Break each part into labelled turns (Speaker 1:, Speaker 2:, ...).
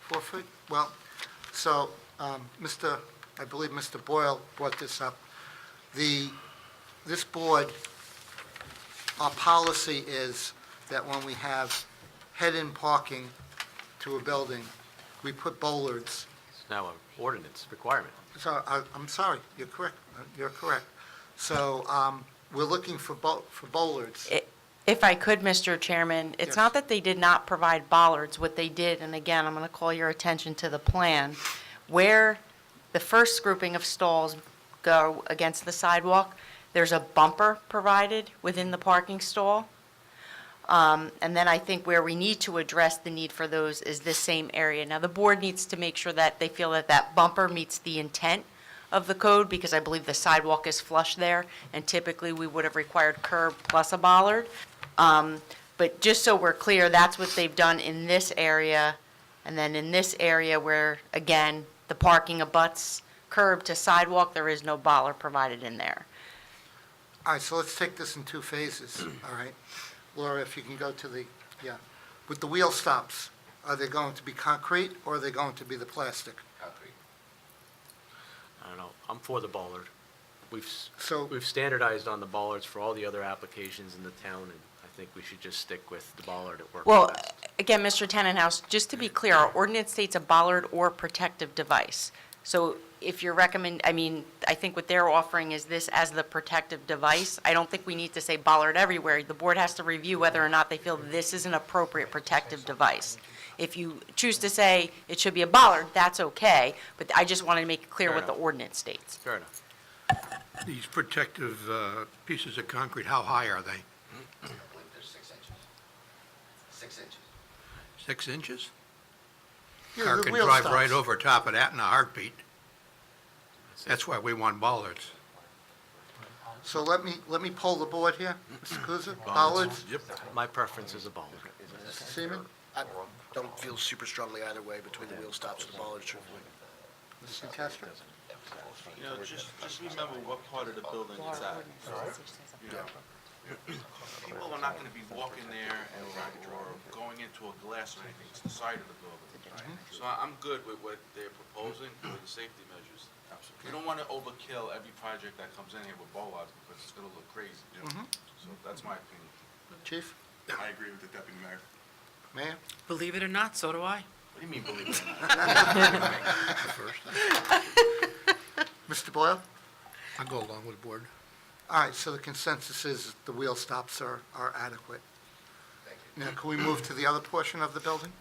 Speaker 1: four feet? Well, so, um, Mr., I believe Mr. Boyle brought this up. The, this board, our policy is that when we have head-in parking to a building, we put bollards.
Speaker 2: It's now an ordinance requirement.
Speaker 1: So, I, I'm sorry, you're correct, uh, you're correct. So, um, we're looking for bol, for bollards.
Speaker 3: If I could, Mr. Chairman,
Speaker 1: Yes.
Speaker 3: it's not that they did not provide bollards, what they did, and again, I'm going to call your attention to the plan, where the first grouping of stalls go against the sidewalk, there's a bumper provided within the parking stall. Um, And then I think where we need to address the need for those is this same area. Now, the board needs to make sure that they feel that that bumper meets the intent of the code, because I believe the sidewalk is flush there, and typically, we would have required curb plus a bollard. Um, But just so we're clear, that's what they've done in this area, and then in this area where, again, the parking abuts curb to sidewalk, there is no bollard provided in there.
Speaker 1: All right, so let's take this in two phases, all right? Laura, if you can go to the, yeah, with the wheel stops, are they going to be concrete or are they going to be the plastic?
Speaker 2: I don't know, I'm for the bollard. We've, s-
Speaker 1: So-
Speaker 2: we've standardized on the bollards for all the other applications in the town, and I think we should just stick with the bollard at work.
Speaker 3: Well, again, Mr. Tannenhouse, just to be clear, our ordinance states a bollard or protective device. So if you're recommend, I mean, I think what they're offering is this as the protective device. I don't think we need to say bollard everywhere. The board has to review whether or not they feel this is an appropriate protective device. If you choose to say it should be a bollard, that's okay, but I just wanted to make it clear
Speaker 2: Fair
Speaker 3: what the
Speaker 2: enough.
Speaker 3: ordinance states.
Speaker 2: Fair enough.
Speaker 4: These protective uh, pieces of concrete, how high are they?
Speaker 5: I believe they're six inches. Six inches.
Speaker 4: Six inches?
Speaker 1: Yeah,
Speaker 4: Car
Speaker 1: the
Speaker 4: can
Speaker 1: wheel
Speaker 4: drive right
Speaker 1: stops.
Speaker 4: over top of that in a heartbeat. That's why we want bollards.
Speaker 1: So let me, let me poll the board here. Mr. Kuzic, bollards,
Speaker 2: Yep. My preference is a bollard.
Speaker 1: Mr. Seaman,
Speaker 5: I don't feel super strongly either way between the wheel stops and the bollards, truthfully.
Speaker 1: Mr. Castro?
Speaker 6: You know, just, just remember what part of the building it's at. People are not gonna be walking there or going into a glass or anything, it's the side of the building.
Speaker 5: Mhm.
Speaker 6: So I- I'm good with what they're proposing for the safety measures. You don't wanna overkill every project that comes in here with bollards, because it's gonna look crazy.
Speaker 5: Mm-hmm.
Speaker 6: So that's my opinion.
Speaker 1: Chief?
Speaker 6: I agree with the deputy mayor.
Speaker 1: Mayor?
Speaker 7: Believe it or not, so do I.
Speaker 6: What do you mean, believe it?
Speaker 1: Mr. Boyle?
Speaker 4: I'll go along with the board.
Speaker 1: All right, so the consensus is the wheel stops are, are adequate. Now, can we move to the other portion of the building?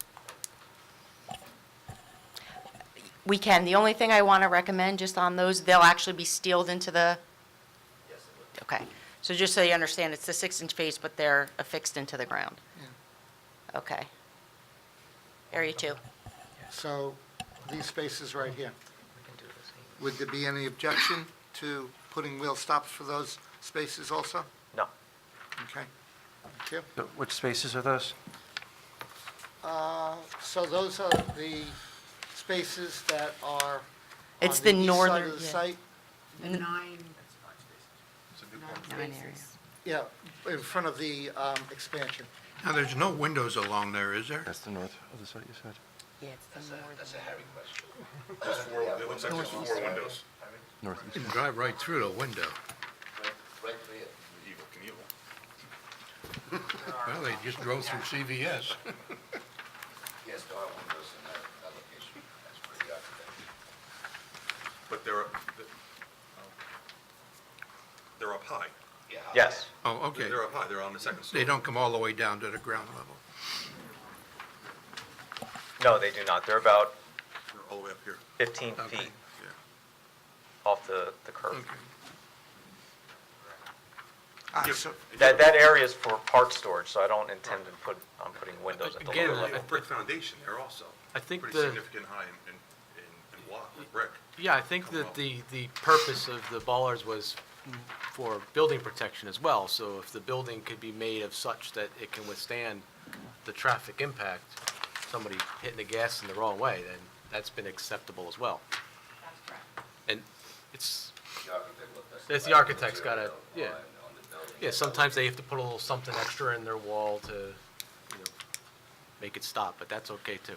Speaker 3: We can, the only thing I want to recommend just on those, they'll actually be sealed into the Okay, so just so you understand, it's the six-inch face, but they're affixed into the ground? Okay. Area two.
Speaker 1: So these spaces right here. Would there be any objection to putting wheel stops for those spaces also?
Speaker 8: No.
Speaker 1: Okay. Thank you.
Speaker 8: So Which spaces are those?
Speaker 1: Uh, So those are the spaces that are
Speaker 3: It's
Speaker 1: on
Speaker 3: the
Speaker 1: east side
Speaker 3: northern-
Speaker 1: of the
Speaker 3: yeah.
Speaker 1: site? Yeah, in front of the um, expansion.
Speaker 4: Now, there's no windows along there, is there?
Speaker 8: Oh, That's the north of the site, you said?
Speaker 3: Yeah, it's the northern.
Speaker 4: You
Speaker 8: Northeast.
Speaker 4: can drive right through the window. Well, they just drove through CVS.
Speaker 5: Yes, there are windows in that, that location. That's where the architect.
Speaker 9: But they're, they're up high.
Speaker 8: Yes.
Speaker 4: Oh, okay.
Speaker 9: They're up high, they're on the second
Speaker 4: They
Speaker 9: story.
Speaker 4: don't come all the way down to the ground level.
Speaker 8: No, they do not. They're about
Speaker 9: They're all the way up here.
Speaker 8: 15
Speaker 4: Okay.
Speaker 8: feet off the, the curb.
Speaker 4: Okay.
Speaker 1: Ah,
Speaker 9: Yeah.
Speaker 1: so-
Speaker 8: That, that area is for part storage, so I don't intend to put, I'm putting windows at the
Speaker 2: Again,
Speaker 8: lower
Speaker 9: They
Speaker 8: level.
Speaker 9: have brick foundation there also.
Speaker 2: I think
Speaker 9: Pretty
Speaker 2: the-
Speaker 9: significant high in, in, in- in block, with brick.
Speaker 2: Yeah, I think that the, the purpose of the bollards was for building protection as well. So if the building could be made of such that it can withstand the traffic impact, somebody hitting the gas in the wrong way, then that's been acceptable as well. And it's, that's the architect's gotta, yeah. Yeah, sometimes they have to put a little something extra in their wall to, you know, make it stop, but that's okay too.